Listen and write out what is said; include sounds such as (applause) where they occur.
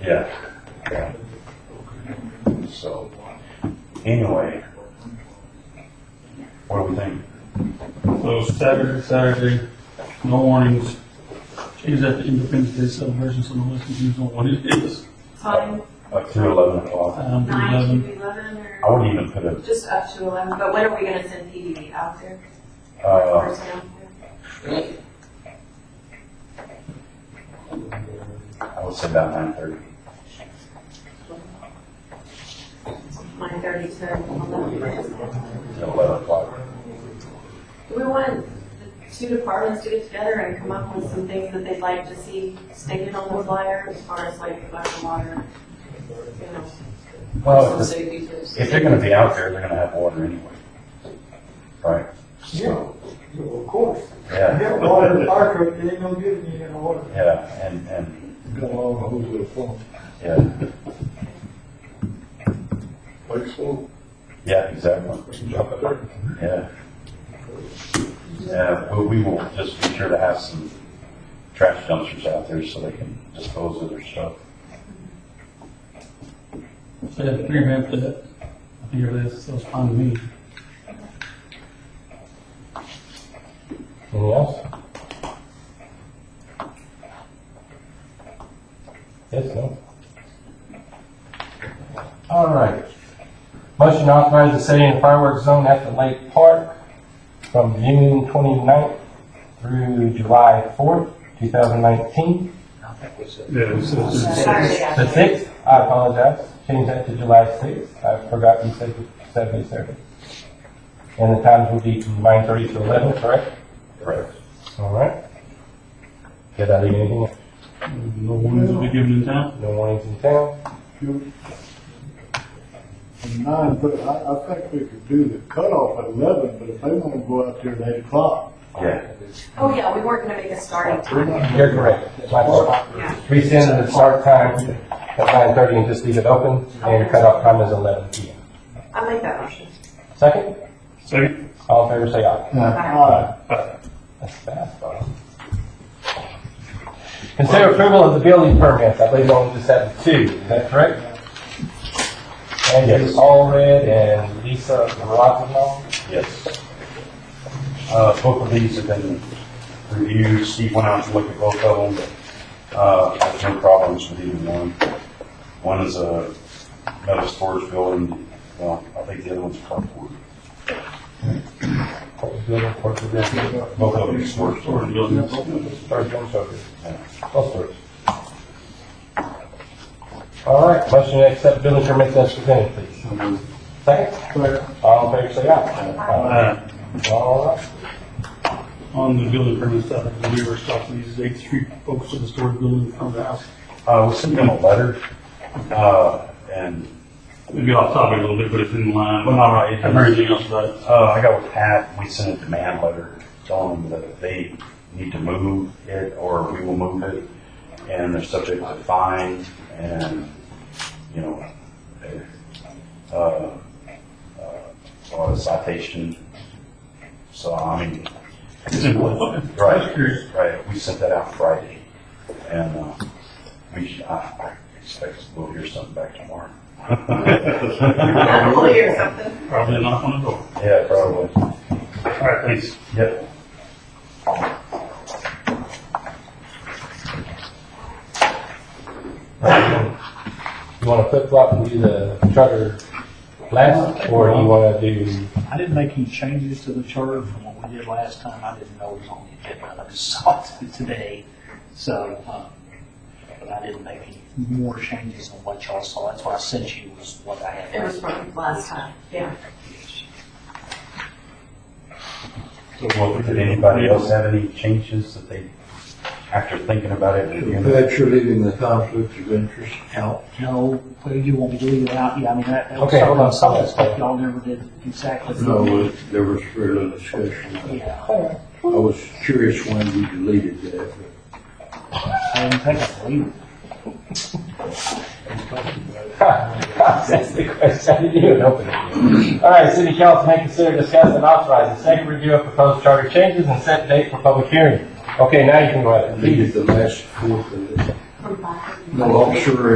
Yeah. yeah. So, anyway. What do we think? So Saturday, Saturday, no warnings. Change that to Independence Day celebration, so nobody confused on what it is. Time, Like through eleven o'clock? Um, to nine eleven. to eleven or? I wouldn't even put a, Just up to eleven, but when are we gonna send PDD out there? uh, Or down there? I would say about nine thirty. Nine thirty to eleven. eleven o'clock. Do we want the two departments to get together and come up with some things that they'd like to see stated on the flyer as far as like black water? You know, Well, if- safety tips. if they're gonna be out there, they're gonna have water anyway. Right? Yeah, well, of course. You Yeah, have water in the fire truck, they ain't gonna get it, you ain't gonna water. yeah, and, and, Got all the hose with a pump, yeah, like so, yeah, exactly, drop it there. yeah. Yeah, but we will just be sure to have some trash dumpsters out there so they can dispose of their stuff. So yeah, three grand for that. I think it is, so it's fine to me. Anything else? Yes, no? All right. Motion to authorize the setting of fireworks zone at the Lake Park from June 29th through July 4th, 2019. Saturday The afternoon. 6th, I apologize, change that to July 6th. I forgot you said Saturday, Saturday. And the times will be from 9:30 to 11, correct? Right. All right. Get out of anything, No warnings will be given in town. no warnings in town. And nine, but I, I think we could do the cutoff at eleven, but if they wanna go out there at eight o'clock, Yeah, Oh, yeah, we weren't gonna make a starting we're time. not. You're correct. My fault. Rescind the start time at nine thirty and just leave it open, and cutoff time is eleven P M. I like that option. Second, Second, all in favor, say aye. Aye. That's fast, bro. Consider approval of the building permits, I believe we only just had two, is that correct? And it's all red and Lisa Rosano. yes. Uh, both of these have been reviewed, Steve went out to look at both of them, uh, had no problems with either one. One is a metal storage building, well, I think the other one's a carport. Building for the building. Both of them are storage or buildings. buildings. Start doing something. All sorts. All right, motion to accept building permits as presented, please. Second, But all in favor, say aye. Uh, Aye. All right. on the building permit side, we were talking these eight street folks to the storage building from the house. Uh, we sent them a letter, uh, and, We'll get off topic a little bit, but it's in line. well, not right. Have anything else about it? Uh, I got with Pat, we sent a demand letter telling them that they need to move it or we will move it. And they're subject to fine and, you know, uh, uh, or a citation. So, I mean, It's in line. Okay. Just right, curious. right, we sent that out Friday. And, uh, we, should- I, I expect we'll hear something back tomorrow. Hopefully or something. Probably a knock on the door. Yeah, probably. All right, thanks. Yep. You want to flip flop and do the charter last, or you want to do, (laughs) I didn't make any changes to the charter from what we did last time. I didn't know it was on the agenda. I just saw it (laughs) today. So, um, but I didn't make any more changes than what y'all saw. That's what I sent you was what I had. It was from last time, yeah. Well, did anybody else have any changes that they, after thinking about it? did you- That you're leaving the conflict of interest out. No, well, you won't be doing it out. Yeah, I mean, that, that was Okay, hold on. something, some of that stuff y'all never did exactly. No, it- there was further discussion. Yeah, I was curious when you deleted that. I didn't think I believed it. that's the question, I didn't even open it. All right, city council may consider discussing and authorizing second review of proposed charter changes and set date for public hearing. Okay, now you can go ahead. Deleted the last fourth of it. From back. No officer